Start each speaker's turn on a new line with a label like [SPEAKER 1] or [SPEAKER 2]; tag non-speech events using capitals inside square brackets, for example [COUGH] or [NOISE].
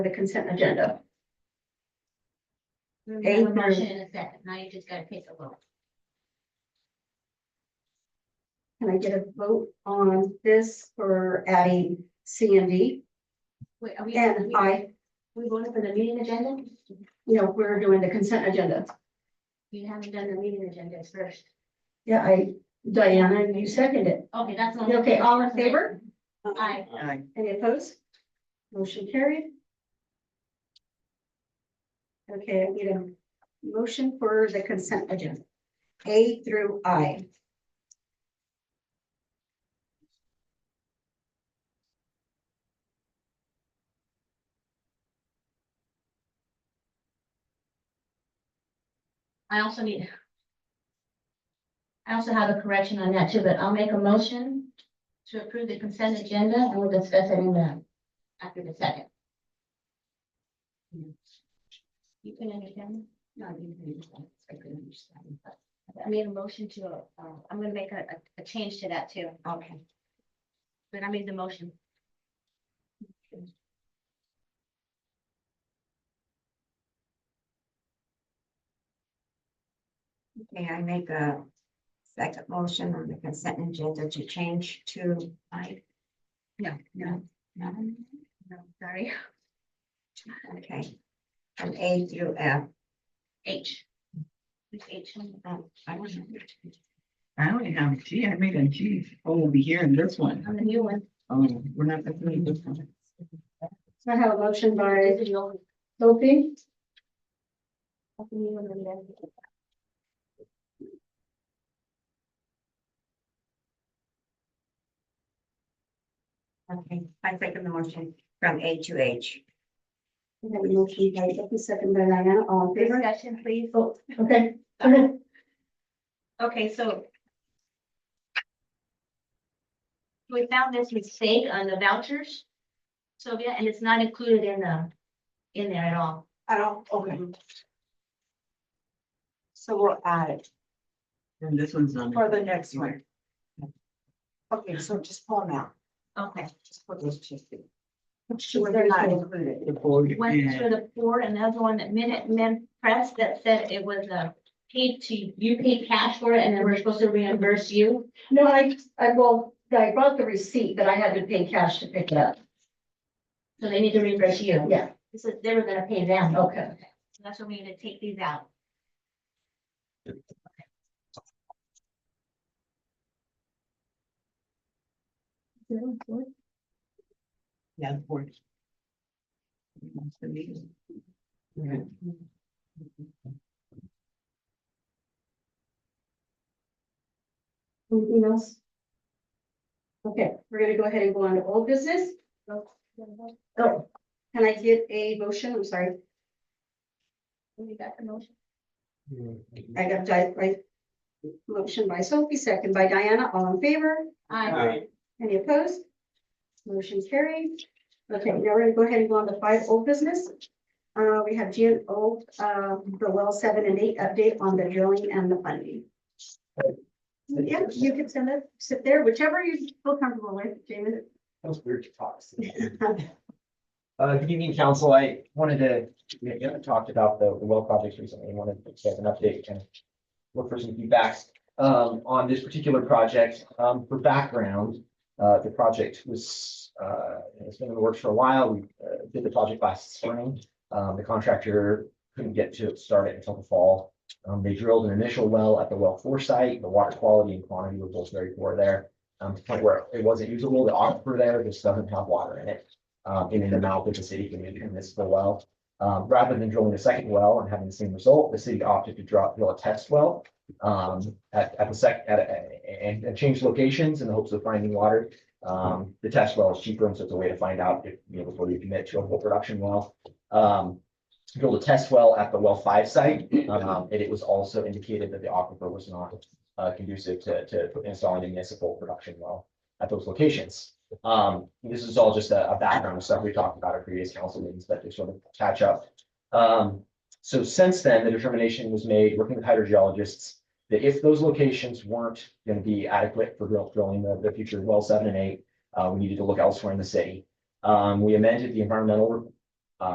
[SPEAKER 1] the consent agenda.
[SPEAKER 2] We have
[SPEAKER 1] Eight
[SPEAKER 2] a
[SPEAKER 1] through-
[SPEAKER 2] motion in a second, now you just gotta take a vote.
[SPEAKER 1] Can I get a vote on this for adding C and D?
[SPEAKER 2] Wait, are we?
[SPEAKER 1] And
[SPEAKER 2] we-
[SPEAKER 1] I,
[SPEAKER 2] We voted for the meeting agenda?
[SPEAKER 1] you know, we're doing the consent agenda.
[SPEAKER 2] You haven't done the meeting agenda first.
[SPEAKER 1] Yeah, I, Diana, you second it.
[SPEAKER 2] Okay, that's. the only-
[SPEAKER 1] Okay, all in favor?
[SPEAKER 2] Aye.
[SPEAKER 3] Aye.
[SPEAKER 1] Any opposed? Motion carried. Okay, I need a motion for the consent agenda, A through I.
[SPEAKER 2] I also need. I also have a correction on that too, but I'll make a motion to approve the consent agenda and we'll discuss it in the, after the second. You can understand? No, you can understand. I couldn't understand, but I made a motion to, uh, I'm gonna make a, a- a change to that too. Okay. But I made the motion.
[SPEAKER 4] May I make a second motion on the consent agenda to change to I?
[SPEAKER 2] No, no,
[SPEAKER 4] No,
[SPEAKER 2] no, sorry.
[SPEAKER 4] okay. From A through F.
[SPEAKER 2] H. Which H?
[SPEAKER 4] Oh, I don't know.
[SPEAKER 3] I only have a G, I made a G over here in this one.
[SPEAKER 2] On the new one.
[SPEAKER 3] Oh, we're not definitely this one.
[SPEAKER 1] So I have a motion by
[SPEAKER 2] This is the old one.
[SPEAKER 1] Sophie.
[SPEAKER 2] That's the new one that we have.
[SPEAKER 4] Okay, I second the motion from A to H.
[SPEAKER 1] We have a motion by Sophie, second by Diana, all in favor?
[SPEAKER 2] Discussion, please.
[SPEAKER 1] Oh, okay, okay.
[SPEAKER 2] Okay, so. We found this mistake on the vouchers, Sylvia, and it's not included in the, in there at all.
[SPEAKER 4] I don't, okay. So we'll add it
[SPEAKER 3] And this one's on.
[SPEAKER 4] the next
[SPEAKER 3] one.
[SPEAKER 4] Okay, so just pull them out,
[SPEAKER 2] Okay,
[SPEAKER 4] just put those two.
[SPEAKER 1] Sure, they're not
[SPEAKER 4] included.
[SPEAKER 3] The board.
[SPEAKER 2] one for the board, another one that Minute Men Press that said it was a paid to, you paid cash for it and then we're supposed to reimburse you.
[SPEAKER 1] No, I, I, well, I brought the receipt, but I had to pay cash to pick it up.
[SPEAKER 2] So they need to reimburse you.
[SPEAKER 1] Yeah,
[SPEAKER 2] This is, they were gonna pay them.
[SPEAKER 1] okay.
[SPEAKER 2] So that's when we're gonna take these out.
[SPEAKER 3] Yeah, the board. That's the meeting.
[SPEAKER 1] Anything else? Okay, we're gonna go ahead and go on to old business. Oh, can I get a motion? I'm sorry,
[SPEAKER 2] We got the motion.
[SPEAKER 1] I got di- right. Motion by Sophie, second by Diana, all in favor?
[SPEAKER 2] Aye.
[SPEAKER 1] Any opposed? Motion carried. Okay, now we're gonna go ahead and go on to five old business. Uh, we have G and O, uh, the well seven and eight update on the drilling and the funding. Yeah, you can send it, sit there, whichever you feel comfortable with, James.
[SPEAKER 5] That was weird to talk. [LAUGHS] Uh, good evening, council. I wanted to, we haven't talked about the the well projects recently. I wanted to get an update and look for some feedback um, on this particular project. Um, for background, uh, the project was, uh, it's been in the works for a while. We uh, did the project last spring. Um, the contractor couldn't get to start it until the fall. Um, they drilled an initial well at the well four site. The water quality and quantity were both very poor there. Um, to the point where it wasn't usable. The aquifer there just doesn't have water in it. Um, and in the mouth of the city community municipal well. Um, rather than drilling a second well and having the same result, the city opted to drop, drill a test well um, at, at the sec, at, a- and, and change locations in the hopes of finding water. Um, the test well is cheaper, and so it's a way to find out if, you know, before you commit to a whole production well. Um, drilled a test well at the well five site, um, and it was also indicated that the aquifer was not uh, conducive to, to installing a municipal production well at those locations. Um, this is all just a, a background of stuff we talked about at previous council meetings, but to sort of catch up. Um, so since then, the determination was made, working with hydrogeologists, that if those locations weren't going to be adequate for drill- drilling the, the future well seven and eight, uh, we needed to look elsewhere in the city. Um, we amended the environmental